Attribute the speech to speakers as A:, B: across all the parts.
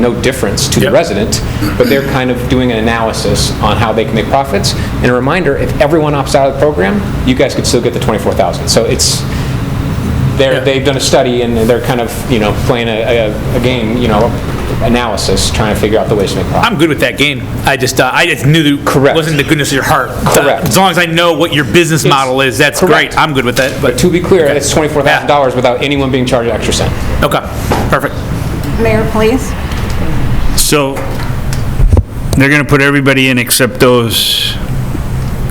A: no difference to the
B: Yep.
A: resident, but they're kind of doing an analysis on how they can make profits. And a reminder, if everyone opts out of the program, you guys could still get the 24,000. So it's,
B: Yeah.
A: they're, they've done a study and they're kind of, you know, playing a, a- a game, you know, analysis, trying to figure out the ways to make profit.
B: I'm good with that game. I just, uh, I just knew that
A: Correct.
B: wasn't the goodness of your heart.
A: Correct.
B: As long as I know what your business model is, that's
A: Correct.
B: great. I'm good with that. But
A: To be clear,
B: Okay.
A: it's $24,000 without anyone being charged an extra cent.
B: Okay, perfect.
C: Mayor, please.
D: So they're going to put everybody in except those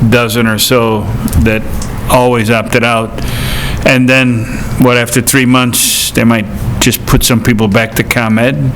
D: dozen or so that always opted out. And then, what, after three months, they might just put some people back to ComEd?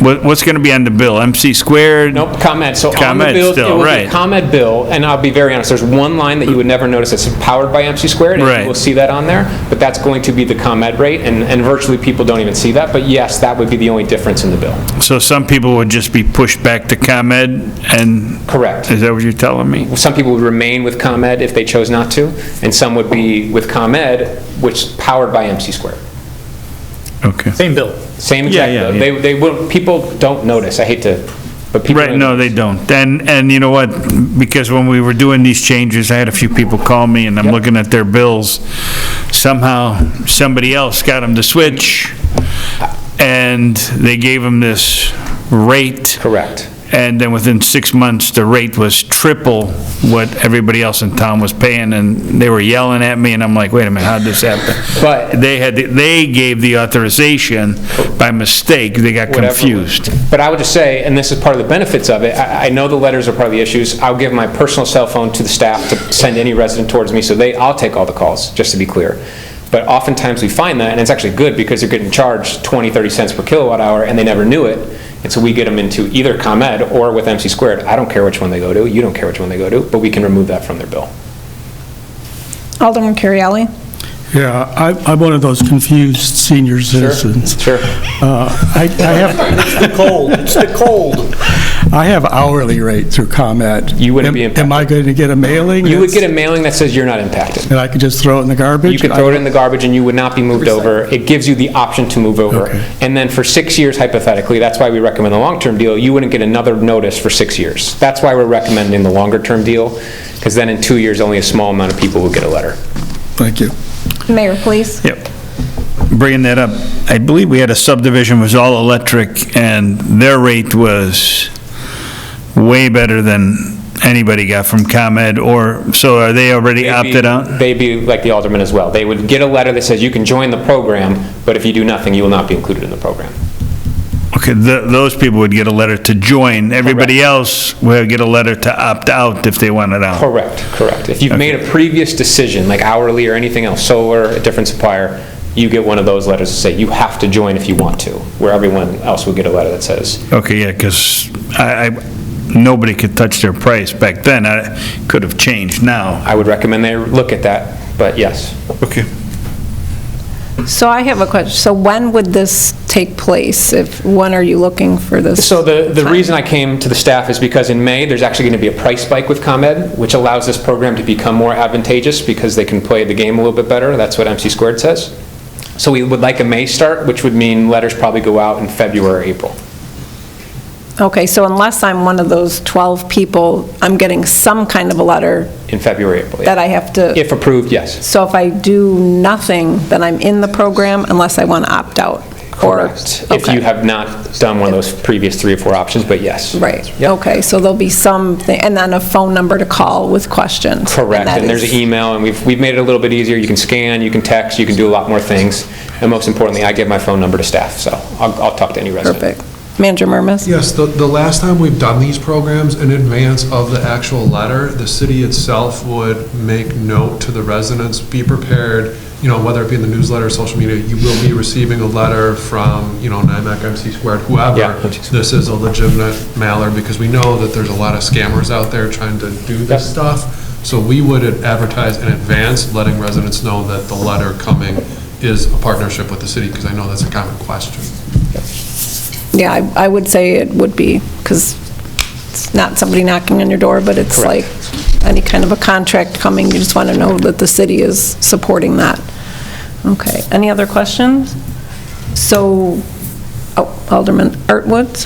D: What- What's going to be on the bill? MC squared?
A: Nope, ComEd, so on the
D: ComEd
A: bill, it
D: still,
A: will be
D: right.
A: ComEd bill, and I'll be very honest, there's one line that you would never notice that's powered by MC squared, and
D: Right.
A: you will see that on there, but that's going to be the ComEd rate, and, and virtually people don't even see that, but yes, that would be the only difference in the bill.
D: So some people would just be pushed back to ComEd and...
A: Correct.
D: Is that what you're telling me?
A: Some people would remain with ComEd if they chose not to, and some would be with ComEd, which is powered by MC squared. Mm-hmm.
D: Okay.
B: Same bill.
A: Same
D: Yeah,
A: exact,
D: yeah,
A: bill.
D: yeah.
A: they, they will, people don't notice, I hate to, but people.
D: Right, no, they don't. And, and you know what, because when we were doing these changes, I had a few people call me, and I'm looking at their bills. Somehow, somebody else got them to switch, and they gave them this rate.
A: Correct.
D: And then within six months, the rate was triple what everybody else in town was paying, and they were yelling at me, and I'm like, wait a minute, how'd this happen?
A: But-
D: They had, they gave the authorization by mistake, they got
A: whatever.
D: confused.
A: But I would just say, and this is part of the benefits of it, I, I know the letters are part of the issues. I'll give my personal cell phone to the staff to send any resident towards me, so they, I'll take all the calls, just to be clear. But oftentimes we find that, and it's actually good because they're getting charged 20, 30 cents per kilowatt hour, and they never knew it. And so we get them into either ComEd or with MC squared. I don't care which one they go to, you don't care which one they go to, but we can remove that from their bill.
C: Alderman Currielli.
E: Yeah, I, I'm one of those confused senior citizens.
A: Sure.
E: Uh, I, I have,
B: The cold, it's the cold.
E: I have hourly rate through ComEd.
A: You wouldn't be
E: Am- Am I going to get a mailing?
A: You would get a
E: that's-
A: mailing that says you're not impacted.
E: And I could just throw it in the garbage?
A: You could throw it in the garbage and you would not be moved over. It gives you the option to move over.
E: Okay.
A: And then for six years hypothetically, that's why we recommend the long-term deal, you wouldn't get another notice for six years. That's why we're recommending the longer-term deal, because then in two years, only a small amount of people will get a letter.
E: Thank you.
C: Mayor, please.
D: Yep. Bringing that up, I believe we had a subdivision was all electric, and their rate was way better than anybody got from ComEd, or, so are they already opted out?
A: They'd be like the alderman as well. They would get a letter that says you can join the program, but if you do nothing, you will not be included in the program.
D: Okay, th- those people would get a letter to join. Everybody else would get a letter to opt out if they wanted out.
A: Correct, correct. If you've made a previous decision, like hourly or anything else, solar, a different supplier, you get one of those letters that say you have to join if you want to, where everyone else would get a letter that says,
D: Okay, yeah, because I, I- nobody could touch their price back then. I could have changed now.
A: I would recommend they look at that, but yes.
D: Okay.
C: So I have a question. So when would this take place? If, when are you looking for this?
A: So the, the reason I came to the staff is because in May, there's actually going to be a price spike with ComEd, which allows this program to become more advantageous because they can play the game a little bit better. That's what MC squared says. So we would like a May start, which would mean letters probably go out in February, April.
C: Okay, so unless I'm one of those 12 people, I'm getting some kind of a letter
A: In February, April. yeah.
C: that I have to,
A: If approved, yes.
C: so if I do nothing, then I'm in the program unless I want to opt out? or-
A: If
C: okay.
A: you have not done one of those previous three or four options, but yes.
C: Right,
A: Yep.
C: okay, so there'll be something, and then a phone number to call with questions.
A: Correct,
C: that
A: and there's
C: is-
A: an email, and we've, we've made it a little bit easier. You can scan, you can text, you can do a lot more things. And most importantly, I give my phone number to staff, so I'll, I'll talk to any resident.
C: Perfect. Manager Murmas?
F: Yes, the, the last time we've done these programs in advance of the actual letter, the city itself would make note to the residents, be prepared, you know, whether it be in the newsletter, social media, you will be receiving a letter from, you know, NIMAC, MC squared,
A: Yeah.
F: whoever. This is a legitimate mailer, because we know that there's a lot of scammers out there trying to do this stuff. So we would advertise in advance, letting residents know that the letter coming is a partnership with the city, because I know that's a common question.
C: Yeah, I I would say it would be, because it's not somebody knocking on your door, but it's like any kind of a contract coming, you just want to know that the city is supporting that. Okay, any other questions? So Oh, Alderman Artwood?